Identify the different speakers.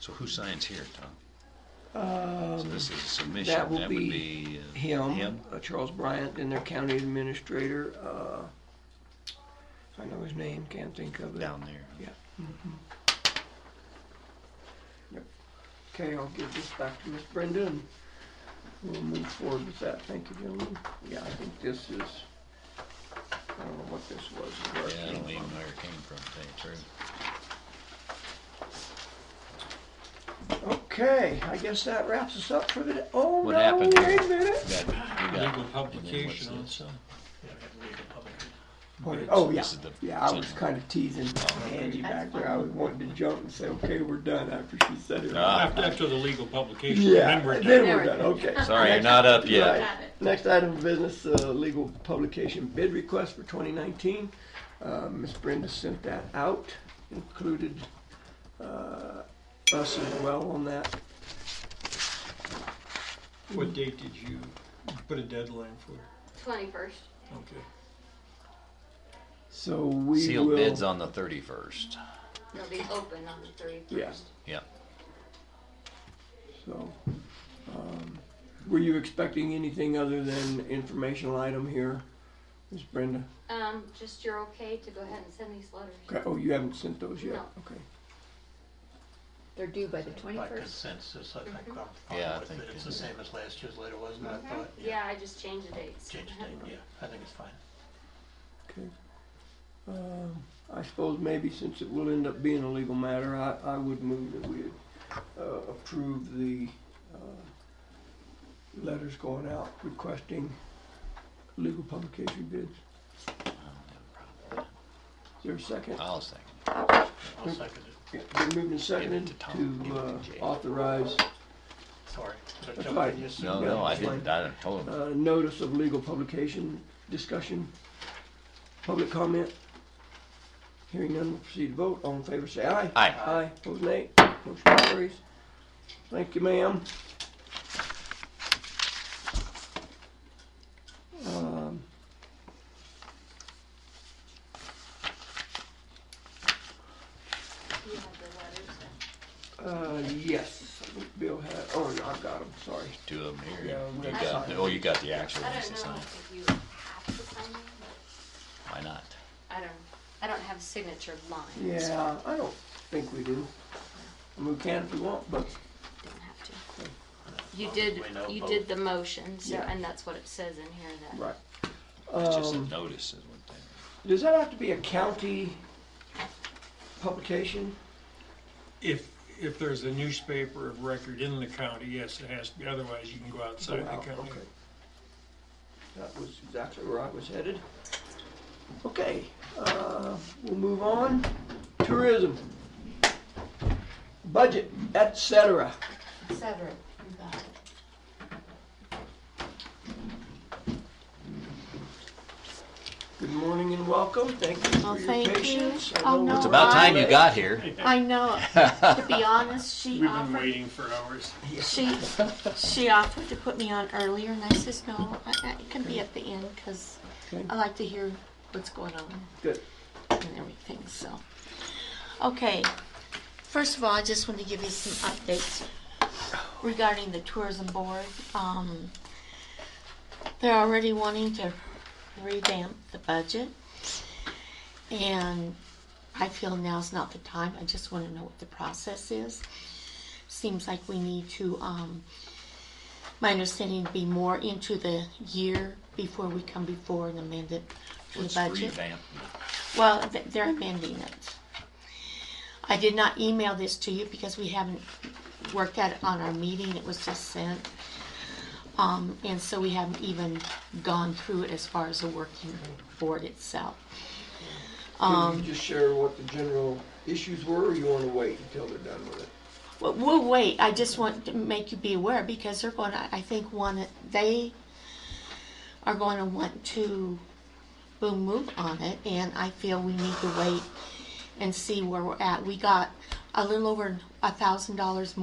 Speaker 1: So who signs here, Tom? So
Speaker 2: Um,
Speaker 1: this is a submission.
Speaker 2: That will
Speaker 1: would
Speaker 2: be
Speaker 1: uh,
Speaker 2: him,
Speaker 1: Him?
Speaker 2: uh, Charles Bryant, and their county administrator. uh, I know his name, can't think of it.
Speaker 1: uh, Down there.
Speaker 2: Yeah. mhm. Yep. Okay, I'll give this back to Miss Brenda and we'll move forward with that. Thank you, gentlemen. Yeah, I think this is, I don't know what this was. where it
Speaker 1: Yeah, I
Speaker 2: came
Speaker 1: don't even know
Speaker 2: from.
Speaker 1: where it came from, to tell you the truth.
Speaker 2: Okay, I guess that wraps us up for the, oh
Speaker 1: What
Speaker 2: no,
Speaker 1: happened?
Speaker 2: wait a minute.
Speaker 1: That- we got-
Speaker 3: Legal
Speaker 1: and then what's
Speaker 3: publication on
Speaker 1: this?
Speaker 3: some.
Speaker 2: What- Oh, yeah,
Speaker 1: This is the-
Speaker 2: yeah, I was kinda teasing Angie back there, I was wanting to jump and say, okay, we're done after she said it.
Speaker 1: Ah.
Speaker 3: After, after the legal publication,
Speaker 2: Yeah,
Speaker 3: then we're done.
Speaker 2: then we're done, okay.
Speaker 1: Sorry, you're not up yet.
Speaker 2: Right. Next item of business, uh, legal publication bid request for 2019. Uh, Ms. Brenda sent that out, included uh, us as well on that.
Speaker 3: What date did you put a deadline for?
Speaker 4: Twenty-first.
Speaker 3: Okay.
Speaker 2: So we
Speaker 1: Sealed bids
Speaker 2: will,
Speaker 1: on the thirty-first.
Speaker 4: It'll be open on the thirty-first.
Speaker 2: Yeah.
Speaker 1: Yep.
Speaker 2: so, um, were you expecting anything other than informational item here, Ms. Brenda?
Speaker 4: Um, just you're okay to go ahead and send these letters.
Speaker 2: Okay, Oh, you haven't sent those yet?
Speaker 4: No.
Speaker 2: Okay.
Speaker 5: They're due by the
Speaker 6: By
Speaker 5: twenty-first.
Speaker 6: consensus, I think I'm
Speaker 1: Yeah, I
Speaker 6: fine with
Speaker 1: think
Speaker 6: it. It's
Speaker 1: it
Speaker 6: the
Speaker 1: is.
Speaker 6: same as last year's letter, wasn't it? I thought, yeah,
Speaker 4: Mm-hmm. Yeah, I just changed the dates.
Speaker 6: change the date, yeah, I think it's fine.
Speaker 2: Okay. Um, I suppose maybe since it will end up being a legal matter, I, I would move that we uh, approve the uh, letters going out requesting legal publication bids. Is there a second?
Speaker 1: I'll second.
Speaker 2: Mm-hmm.
Speaker 6: I'll second it,
Speaker 2: Yeah, Been moved and seconded
Speaker 1: to Tom.
Speaker 2: to
Speaker 1: Give it to
Speaker 2: uh,
Speaker 1: Jay.
Speaker 2: authorize
Speaker 6: sorry. But
Speaker 2: That's
Speaker 6: don't
Speaker 2: fine.
Speaker 6: you see-
Speaker 1: No, no, I didn't, I didn't told him.
Speaker 2: uh, notice of legal publication, discussion, public comment. Hearing none, we'll proceed to vote. All in favor, say aye.
Speaker 1: Aye.
Speaker 2: Aye, opposed nay. Motion carries. Thank you, ma'am. Um,
Speaker 4: You have the letters.
Speaker 2: uh, yes, I think Bill had, oh, no, I got him, sorry.
Speaker 1: Two of them
Speaker 2: Yeah,
Speaker 1: here.
Speaker 2: we
Speaker 1: You
Speaker 2: got
Speaker 1: got,
Speaker 2: signed.
Speaker 1: oh, you got the actual
Speaker 4: I
Speaker 1: ones
Speaker 4: don't
Speaker 1: to
Speaker 4: know
Speaker 1: sign.
Speaker 4: if you have to sign them, but
Speaker 1: Why not?
Speaker 4: I don't, I don't have signature lines. so
Speaker 2: Yeah, I don't think we do. And we can if we want, but
Speaker 4: I Don't have to.
Speaker 6: As
Speaker 4: You
Speaker 6: long as
Speaker 4: did,
Speaker 6: we know
Speaker 4: you
Speaker 6: both.
Speaker 4: did the motion, so,
Speaker 2: Yeah.
Speaker 4: and that's what it says in here that.
Speaker 2: Right.
Speaker 1: It's just a
Speaker 2: Um,
Speaker 1: notice is one thing.
Speaker 2: Does that have to be a county publication?
Speaker 3: If, if there's a newspaper of record in the county, yes, it has to be, otherwise you can go outside
Speaker 2: Wow,
Speaker 3: the county.
Speaker 2: okay. That was exactly where I was headed. Okay, uh, we'll move on. Tourism. Budget, et cetera.
Speaker 5: Et cetera. You got it.
Speaker 2: Good morning and welcome. Thank you
Speaker 5: Well,
Speaker 2: for your
Speaker 5: thank you.
Speaker 2: patience. I
Speaker 5: Oh,
Speaker 2: know
Speaker 5: no,
Speaker 1: It's about time you
Speaker 5: Right.
Speaker 1: got here.
Speaker 5: I know, to be honest, she
Speaker 3: We've been
Speaker 5: offered,
Speaker 3: waiting for hours.
Speaker 5: she, she offered to put me on earlier and I says, no, I, I it can be at the end because
Speaker 2: Okay.
Speaker 5: I like to hear what's going on
Speaker 2: Good.
Speaker 5: and everything, so. Okay, first of all, I just want to give you some updates regarding the tourism board. Um, they're already wanting to revamp the budget. And I feel now's not the time. I just want to know what the process is. Seems like we need to, um, my understanding, be more into the year before we come before an amended to the
Speaker 1: Let's
Speaker 5: budget.
Speaker 1: revamp.
Speaker 5: Well, th- they're amending it. I did not email this to you because we haven't worked at it on our meeting, it was just sent. Um, and so we haven't even gone through it as far as the working board itself. um,
Speaker 2: Can you just share what the general issues were, or you want to wait until they're done with it?
Speaker 5: Well, we'll wait, I just want to make you be aware because they're going, to I think one, they are going to want to, will move on it and I feel we need to wait and see where we're at. We got a little over a thousand dollars more.